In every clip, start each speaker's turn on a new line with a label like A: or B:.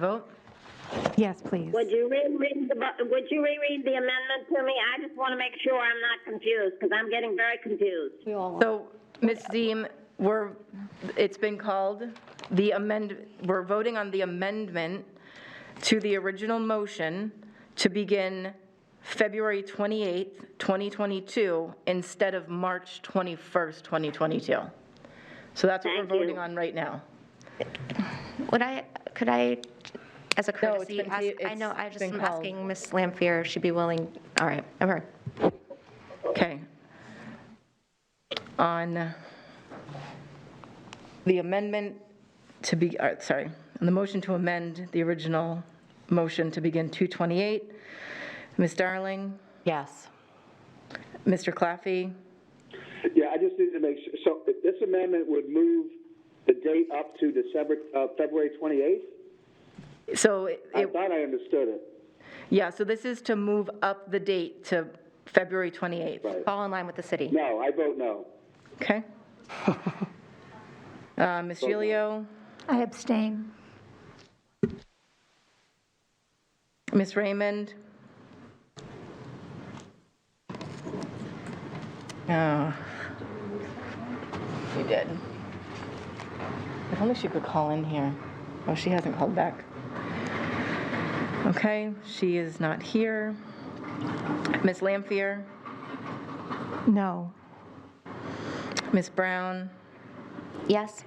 A: Vote?
B: Yes, please.
C: Would you reread the, bu- would you reread the amendment to me? I just want to make sure I'm not confused, because I'm getting very confused.
A: So, Ms. Deem, we're, it's been called the amend, we're voting on the amendment to the original motion to begin February 28th, 2022, instead of March 21st, 2022. So that's what we're
C: Thank you.
A: voting on right now.
D: Would I, could I, as a
A: No, it's
D: courtesy,
A: been
D: ask,
A: ta-
D: I know,
A: it's
D: I just
A: been
D: am
A: called.
D: asking Ms. Lampier if she'd be willing, all right, I've heard.
A: Okay. On the amendment to be, uh, sorry, on the motion to amend the original motion to begin 228, Ms. Darling,
B: Yes.
A: Mr. Claffey,
E: Yeah, I just need to make, su- so this amendment would move the date up to December, uh, February 28th?
A: so, it-
E: I thought I understood it.
A: yeah, so this is to move up the date to February 28th,
D: Fall in line with the city.
E: No, I vote no.
A: okay? Uh, Ms. Gilio,
F: I abstain.
A: Ms. Raymond? Oh. We did. If only she could call in here. Oh, she hasn't called back. Okay, she is not here. Ms. Lampier,
B: No.
A: Ms. Brown,
D: Yes?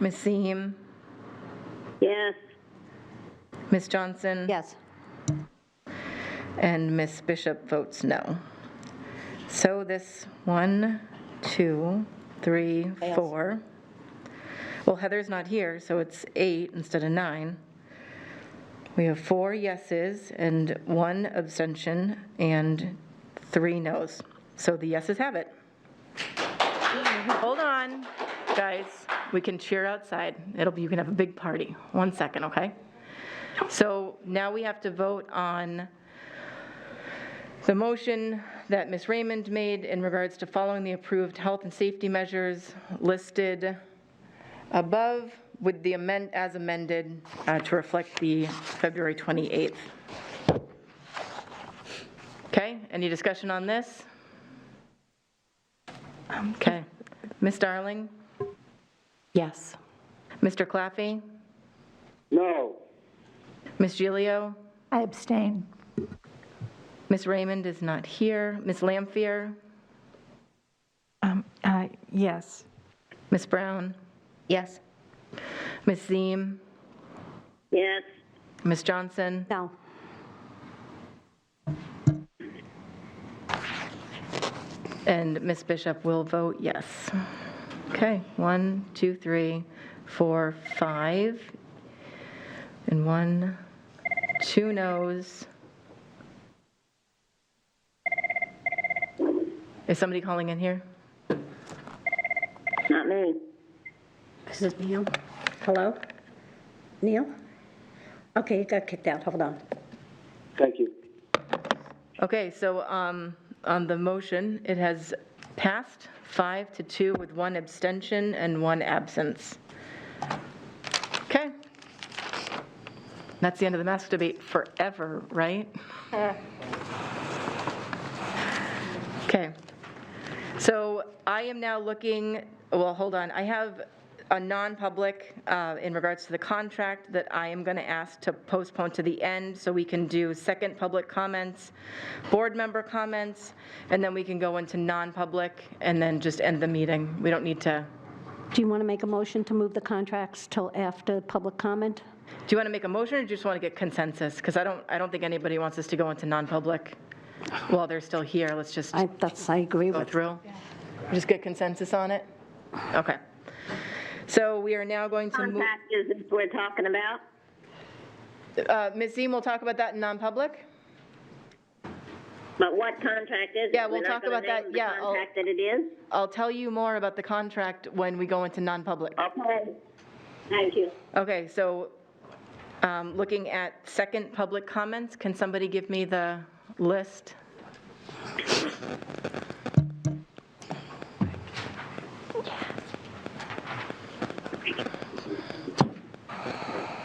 A: Ms. Seem,
C: Yes,
A: Ms. Johnson?
D: Yes.
A: And Ms. Bishop votes no. So this, one, two, three, four. Well, Heather's not here, so it's eight instead of nine. We have four yeses and one abstention and three noes. So the yeses have it. Hold on, guys. We can cheer outside. It'll be, you can have a big party. One second, okay? So now we have to vote on the motion that Ms. Raymond made in regards to following the approved health and safety measures listed above with the amend, as amended, uh, to reflect the February 28th. Okay, any discussion on this? Okay. Ms. Darling?
B: Yes.
A: Mr. Claffey?
E: No,
A: Ms. Gilio?
F: I abstain.
A: Ms. Raymond is not here. Ms. Lampier?
B: Um, uh, yes.
A: Ms. Brown?
D: Yes?
A: Ms. Ziem?
C: yes,
A: Ms. Johnson?
D: No.
A: And Ms. Bishop will vote yes. Okay, one, two, three, four, five. And one, two noes. Is somebody calling in here?
C: not me.
G: Is this Neil? Hello? Neil? Okay, you got kicked out, hold on.
E: thank you.
A: Okay, so um, on the motion, it has passed five to two with one abstention and one absence. Okay. That's the end of the mask debate forever, right? Okay. So I am now looking, well, hold on, I have a non-public uh, in regards to the contract that I am going to ask to postpone to the end so we can do second public comments, board member comments, and then we can go into non-public and then just end the meeting. We don't need to,
H: Do you want to make a motion to move the contracts till after public comment?
A: do you want to make a motion or do you just want to get consensus? Because I don't, I don't think anybody wants us to go into non-public while they're still here. Let's just.
H: I, that's, I agree
A: go
H: with.
A: through? Just get consensus on it? Okay. So we are now going to move,
C: Contact is what we're talking about.
A: uh, Ms. Ziem, we'll talk about that in non-public?
C: But what contract is it?
A: Yeah, we'll
C: We're not
A: talk about that.
C: gonna name
A: Yeah, I'll-
C: The contract that it is?
A: I'll tell you more about the contract when we go into non-public.
C: Okay. Thank you.
A: Okay, so um, looking at second public comments, can somebody give me the list?